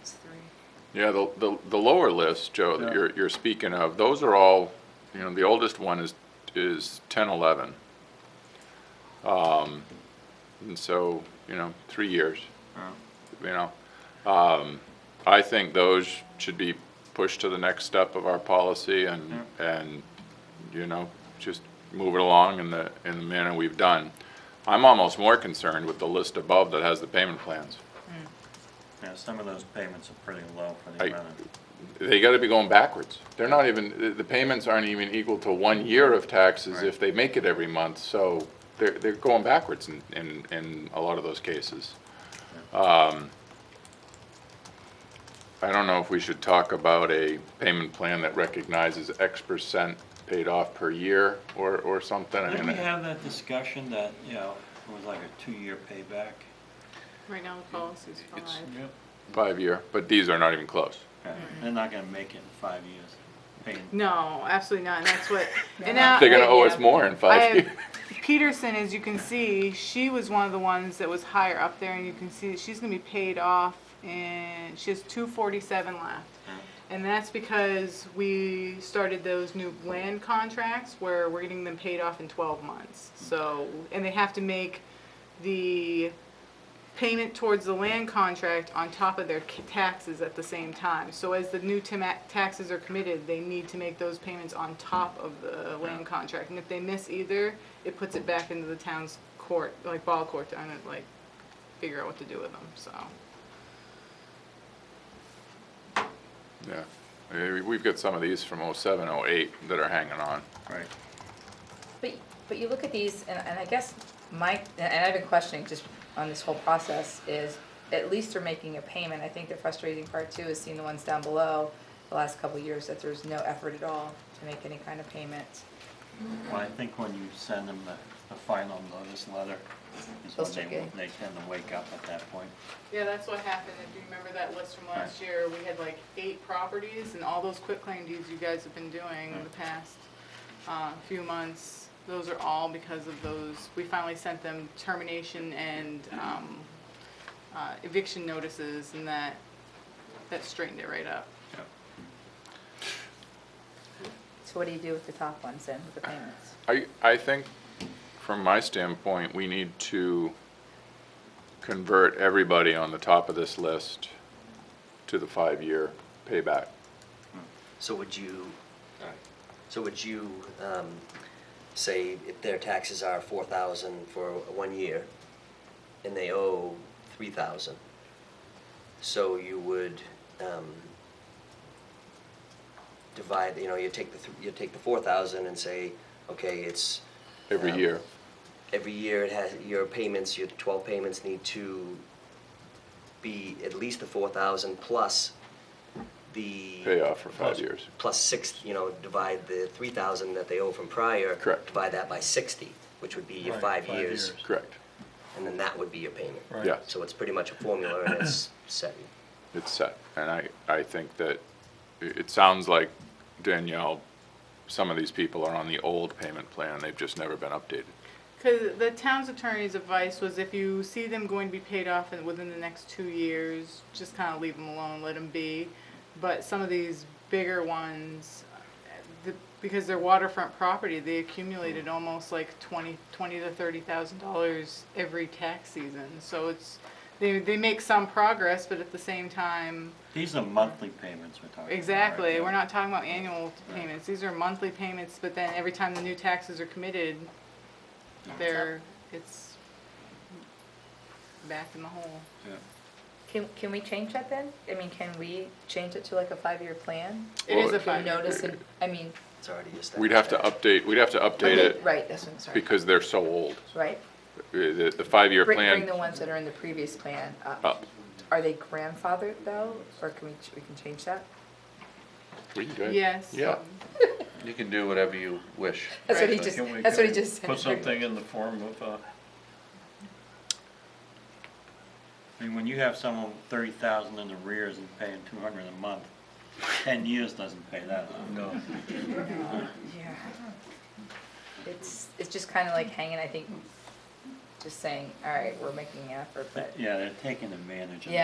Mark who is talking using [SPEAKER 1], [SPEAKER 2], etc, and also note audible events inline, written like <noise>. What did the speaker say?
[SPEAKER 1] It's three.
[SPEAKER 2] Yeah, the, the, the lower list, Joe,
[SPEAKER 3] Yeah.
[SPEAKER 2] that you're, you're speaking of, those are all, you know, the oldest one is, is ten, eleven. Um, and so, you know, three years,
[SPEAKER 3] Yeah.
[SPEAKER 2] you know. Um, I think those should be pushed to the next step of our policy and, and, you know, just move it along in the, in the manner we've done. I'm almost more concerned with the list above that has the payment plans.
[SPEAKER 3] Yeah, some of those payments are pretty low for the
[SPEAKER 2] I-
[SPEAKER 3] amount of,
[SPEAKER 2] they gotta be going backwards. They're not even, the- the payments aren't even equal to one year of taxes
[SPEAKER 3] Right.
[SPEAKER 2] if they make it every month, so they're, they're going backwards in, in, in a lot of those cases. Um, I don't know if we should talk about a payment plan that recognizes X percent paid off per year or, or something. I
[SPEAKER 3] didn't we
[SPEAKER 2] mean,
[SPEAKER 3] have that discussion that, you know, it was like a two-year payback?
[SPEAKER 1] Right now, the policy's five.
[SPEAKER 3] It's-
[SPEAKER 2] Five-year, but these are not even close.
[SPEAKER 3] Yeah, They're not gonna make it in five years, paying,
[SPEAKER 1] No, absolutely not, and
[SPEAKER 2] <laughs>
[SPEAKER 1] that's what, and now.
[SPEAKER 2] They're gonna owe us
[SPEAKER 1] yeah.
[SPEAKER 2] more in
[SPEAKER 1] I
[SPEAKER 2] five
[SPEAKER 1] Uh, have-
[SPEAKER 2] <laughs> years.
[SPEAKER 1] Peterson, as you can see, she was one of the ones that was higher up there, and you can see that she's gonna be paid off, and she has two forty-seven left. And that's because we started those new land contracts where we're getting them paid off in twelve months, so, and they have to make the payment towards the land contract on top of their ca- taxes at the same time. So as the new tama- taxes are committed, they need to make those payments on top of the land contract. And if they miss either, it puts it back into the town's court, like ball court, to kind of, like figure out what to do with them, so.
[SPEAKER 2] Yeah, Uh, we've got some of these from oh oh-seven, oh-eight that are hanging on.
[SPEAKER 3] right,
[SPEAKER 4] But, but you look at these, and, and I guess my, and I've been questioning just on this whole process, is at least they're making a payment. I think the frustrating part too is seeing the ones down below, the last couple of years, that there's no effort at all to make any kind of payment.
[SPEAKER 3] well, I think when you send them the, the final notice letter, is
[SPEAKER 4] They'll
[SPEAKER 3] when
[SPEAKER 4] start
[SPEAKER 3] they,
[SPEAKER 4] getting-
[SPEAKER 3] they tend to wake up at that point.
[SPEAKER 1] Yeah, that's what happened. If you remember that list from last
[SPEAKER 3] Right.
[SPEAKER 1] year, we had like eight properties and all those quitclaim deeds you guys have been doing in the past, uh, few months. Those are all because of those, we finally sent them termination and, um, uh, eviction notices and that, that straightened it right up.
[SPEAKER 3] Yeah.
[SPEAKER 4] So what do you do with the top ones then, with the payments?
[SPEAKER 2] I, I think, from my standpoint, we need to convert everybody on the top of this list to the five-year payback.
[SPEAKER 5] So would you, so would you, um, say if their taxes are four thousand for one year and they owe three thousand? So you would, um, divide, you know, you take the, th- you take the four thousand and say, okay, it's.
[SPEAKER 2] Every
[SPEAKER 5] um,
[SPEAKER 2] year.
[SPEAKER 5] Every year it has, your payments, your twelve payments need to be at least the four thousand plus the.
[SPEAKER 2] Payoff for five years.
[SPEAKER 5] Plus six, you know, divide the three thousand that they owe from prior.
[SPEAKER 2] Correct.
[SPEAKER 5] Divide that by sixty, which would be your
[SPEAKER 3] Right,
[SPEAKER 5] five
[SPEAKER 3] five
[SPEAKER 5] years,
[SPEAKER 3] years.
[SPEAKER 2] Correct.
[SPEAKER 5] and then that would be your payment.
[SPEAKER 3] Right.
[SPEAKER 2] Yeah,
[SPEAKER 5] So it's pretty much a formula and it's set.
[SPEAKER 2] it's set. And I, I think that, it, it sounds like Danielle, some of these people are on the old payment plan. They've just never been updated.
[SPEAKER 1] Because the town's attorney's advice was if you see them going to be paid off in- within the next two years, just kind of leave them alone, let them be. But some of these bigger ones, uh, the- because they're waterfront property, they accumulated almost like twenty, twenty to thirty thousand dollars every tax season. So it's, they, they make some progress, but at the same time,
[SPEAKER 3] These are monthly payments we're talking about. right?
[SPEAKER 1] Exactly,
[SPEAKER 3] Yeah.
[SPEAKER 1] we're not talking about annual
[SPEAKER 3] Right.
[SPEAKER 1] payments, these are monthly payments, but then every time the new taxes are committed, they're, it's back in the hole.
[SPEAKER 3] Yeah.
[SPEAKER 4] Can, can we change that then? I mean, can we change it to like a five-year plan?
[SPEAKER 2] Well,
[SPEAKER 1] It is a
[SPEAKER 4] If you
[SPEAKER 1] five.
[SPEAKER 4] notice, and, I mean,
[SPEAKER 5] It's already established.
[SPEAKER 2] We'd have to update, we'd have to update
[SPEAKER 4] okay,
[SPEAKER 2] it
[SPEAKER 4] right, that's what I'm sorry,
[SPEAKER 2] because they're so old.
[SPEAKER 4] right?
[SPEAKER 2] Uh, The, the five-year
[SPEAKER 4] Bring, bring
[SPEAKER 2] plan
[SPEAKER 4] the ones that are in the previous plan up.
[SPEAKER 2] up.
[SPEAKER 4] Are they grandfathered though, or can we, ch- we can change that?
[SPEAKER 2] We can go ahead.
[SPEAKER 1] Yes.
[SPEAKER 2] Yeah.
[SPEAKER 6] You can do whatever you wish.
[SPEAKER 4] That's what he
[SPEAKER 1] Right.
[SPEAKER 4] just,
[SPEAKER 7] Can we-
[SPEAKER 4] that's what he
[SPEAKER 7] can we
[SPEAKER 4] just said.
[SPEAKER 7] Put something in the form of, uh,
[SPEAKER 3] I mean, when you have someone thirty thousand in arrears and paying two hundred a month, ten years doesn't pay that off.
[SPEAKER 7] no,
[SPEAKER 4] Yeah. It's, it's just kind of like hanging, I think, just saying, all right, we're making an effort, but.
[SPEAKER 3] Yeah, they're taking advantage of
[SPEAKER 4] Yeah,